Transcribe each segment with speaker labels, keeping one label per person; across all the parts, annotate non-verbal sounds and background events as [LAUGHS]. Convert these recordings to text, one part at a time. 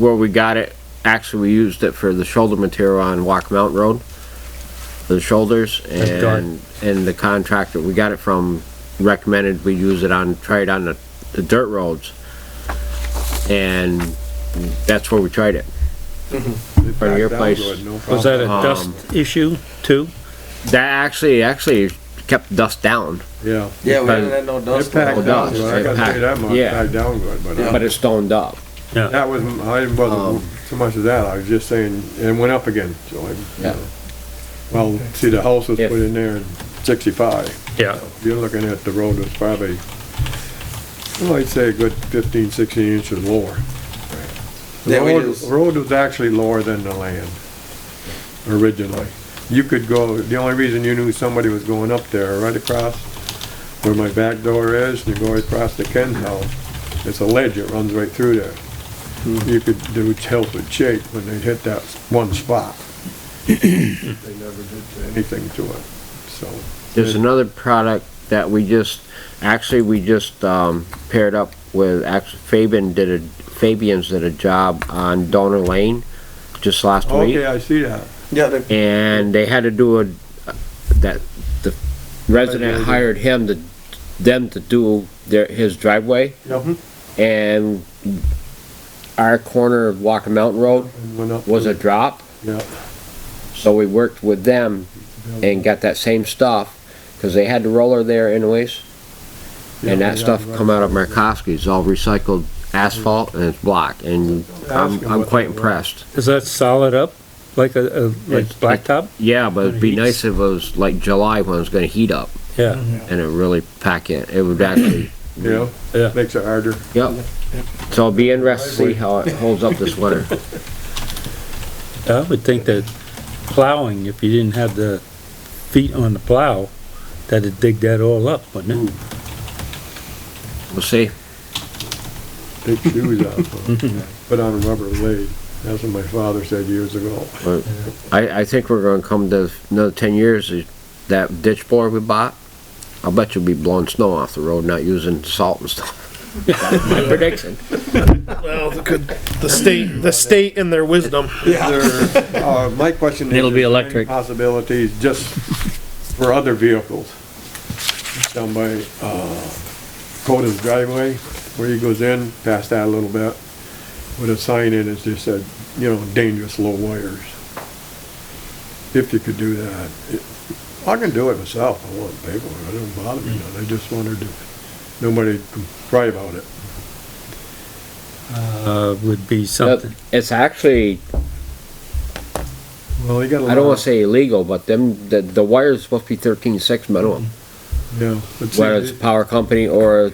Speaker 1: where we got it, actually, we used it for the shoulder material on Walk Mountain Road. The shoulders
Speaker 2: That's dark.
Speaker 1: and, and the contractor, we got it from, recommended we use it on, try it on the, the dirt roads. And that's where we tried it. From your place.
Speaker 2: Was that a
Speaker 1: Um,
Speaker 2: dust issue too?
Speaker 1: That actually, actually kept dust down,
Speaker 3: Yeah.
Speaker 4: Yeah, we didn't have no
Speaker 3: It
Speaker 4: dust.
Speaker 3: packed down
Speaker 1: dust,
Speaker 3: good, I
Speaker 1: it
Speaker 3: gotta tell you that much,
Speaker 1: packed-
Speaker 3: it
Speaker 1: yeah.
Speaker 3: packed down good, but
Speaker 4: Yeah.
Speaker 3: uh,
Speaker 1: but it stoned up.
Speaker 2: Yeah,
Speaker 3: that was, I wasn't so much of that, I was just saying, it went up again, so I. you
Speaker 1: Yeah.
Speaker 3: know. Well, see, the house was
Speaker 1: If-
Speaker 3: put in there in sixty-five,
Speaker 2: yeah,
Speaker 3: you're looking at the road was probably, well, I'd say a good fifteen, sixteen inches lower. The
Speaker 4: Yeah, we
Speaker 3: road,
Speaker 4: just-
Speaker 3: road was actually lower than the land originally. You could go, the only reason you knew somebody was going up there, right across where my back door is, and you go across to Ken's house, it's a ledge, it runs right through there. You could, the tilt would shake when they hit that one spot. They never did anything to it, so.
Speaker 1: There's another product that we just, actually, we just, um, paired up with, actually, Fabian did a, Fabian's did a job on Donor Lane just last
Speaker 3: Okay,
Speaker 1: week.
Speaker 3: I see that.
Speaker 4: Yeah, they,
Speaker 1: And they had to do a, that, the resident hired him to, them to do their, his driveway
Speaker 3: Yep,
Speaker 1: and our corner of Walker Mountain Road
Speaker 3: and went up.
Speaker 1: was a drop,
Speaker 3: Yeah,
Speaker 1: so we worked with them and got that same stuff, cause they had the roller there anyways.
Speaker 3: yeah,
Speaker 1: And that
Speaker 3: yeah,
Speaker 1: stuff
Speaker 3: right.
Speaker 1: come out of Markowski, it's all recycled asphalt and it's block, and I'm, I'm quite impressed.
Speaker 2: is that solid up, like a, a, like
Speaker 1: It's-
Speaker 2: blacktop?
Speaker 1: Yeah, but it'd be nice if it was like July when it's gonna heat up
Speaker 2: Yeah,
Speaker 1: and it really pack it, it would actually,
Speaker 3: Yeah,
Speaker 2: yeah,
Speaker 3: makes it harder.
Speaker 1: yep. So it'll be interesting to see how it holds up this winter.
Speaker 2: I would think that plowing, if you didn't have the feet on the plow, that'd dig that all up, wouldn't it?
Speaker 1: We'll see.
Speaker 3: Take shoes
Speaker 1: [LAUGHS]
Speaker 3: off, put on a rubber blade. That's what my father said years ago.
Speaker 1: But I, I think we're gonna come to another ten years, that ditch blower we bought, I bet you'll be blowing snow off the road, not using salt and stuff. [LAUGHS] My prediction.
Speaker 5: Well, the, good- the state, the state and their wisdom.
Speaker 3: Is there- [LAUGHS] uh, My question is.
Speaker 6: It'll be
Speaker 3: is there any
Speaker 6: electric.
Speaker 3: Possibilities just for other vehicles. Down by, uh, Coda's driveway, where he goes in, past that a little bit, with a sign in, it just said, you know, dangerous low wires. If you could do that. It- I can do it myself, I want paper, it don't bother me none, I just wondered if nobody could cry about it.
Speaker 2: Uh, would be something,
Speaker 1: It's actually
Speaker 3: Well, you got a lot.
Speaker 1: I don't wanna say illegal, but them, the, the wire's supposed to be thirteen six minimum,
Speaker 3: Yeah. but see,
Speaker 1: whether it's a power company or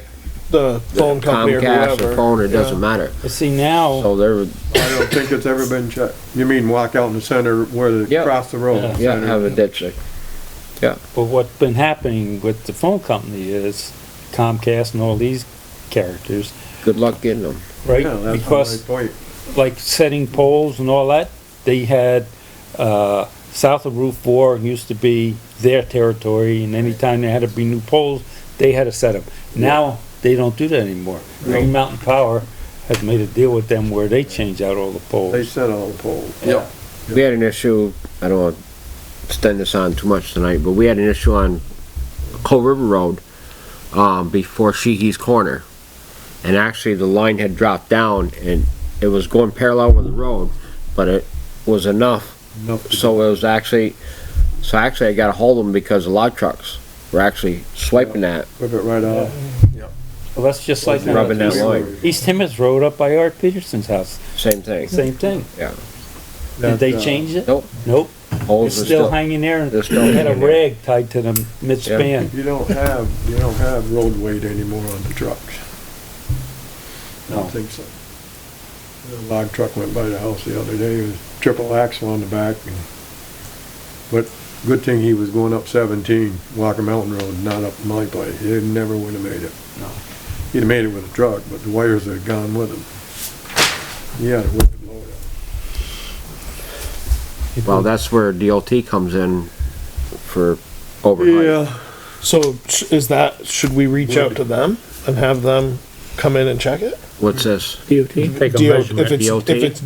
Speaker 5: The Mm-hmm. phone company or
Speaker 1: Comcast or
Speaker 5: whoever.
Speaker 1: phone, it doesn't matter.
Speaker 6: But see now,
Speaker 1: So they're,
Speaker 3: I don't think it's ever been checked. You mean walk out in the center where the,
Speaker 1: Yeah.
Speaker 3: across the road?
Speaker 6: Yeah.
Speaker 1: yeah,
Speaker 3: center.
Speaker 1: have a ditch, like,
Speaker 6: but what's been happening with the phone company is Comcast and all these characters,
Speaker 1: good luck getting them.
Speaker 6: right?
Speaker 3: Yeah, that's my
Speaker 6: Because
Speaker 3: point.
Speaker 6: like setting poles and all that, they had, uh, south of Route Four used to be their territory and anytime there had to be new poles, they had to set them. Now, they don't do that anymore. Green Mountain Power has made a deal with them where they change out all the
Speaker 3: They
Speaker 6: poles.
Speaker 3: set all the poles.
Speaker 4: yeah,
Speaker 1: We had an issue, I don't wanna extend this on too much tonight, but we had an issue on Coal River Road, um, before Sheehy's Corner. And actually, the line had dropped down and it was going parallel with the road, but it was enough
Speaker 3: Enough to-
Speaker 1: So it was actually, so actually I got a hold of them because a lot of trucks were actually swiping that.
Speaker 3: Rip it right off.
Speaker 6: Well, that's just like.
Speaker 1: Rubbing that line.
Speaker 6: East Timmins Road up by Art Peterson's house,
Speaker 1: Same thing.
Speaker 6: same thing. Did
Speaker 3: That,
Speaker 6: they
Speaker 3: uh,
Speaker 6: change it?
Speaker 1: Nope.
Speaker 6: Nope,
Speaker 1: Holes
Speaker 6: it's
Speaker 1: were
Speaker 6: still hanging there, and
Speaker 1: they're
Speaker 6: it
Speaker 1: still
Speaker 6: had a
Speaker 1: hanging there.
Speaker 6: rag tied to the midspan.
Speaker 3: You don't have, you don't have road weight anymore on the trucks. I
Speaker 6: No.
Speaker 3: don't think so. A log truck went by the house the other day, it was triple axle on the back. and- But good thing he was going up seventeen, Walker Mountain Road, not up my place. He never would have made it.
Speaker 6: No.
Speaker 3: He'd have made it with a truck, but the wires had gone with him. He had a wicked load up.
Speaker 1: Well, that's where DLT comes in for overnight.
Speaker 3: Yeah,
Speaker 5: So sh- is that, should we reach out to them and have them come in and check it?
Speaker 1: What's this?
Speaker 4: DOT?
Speaker 2: Take a
Speaker 5: DO
Speaker 2: measurement.
Speaker 5: If it's, if
Speaker 1: DOT?
Speaker 5: it's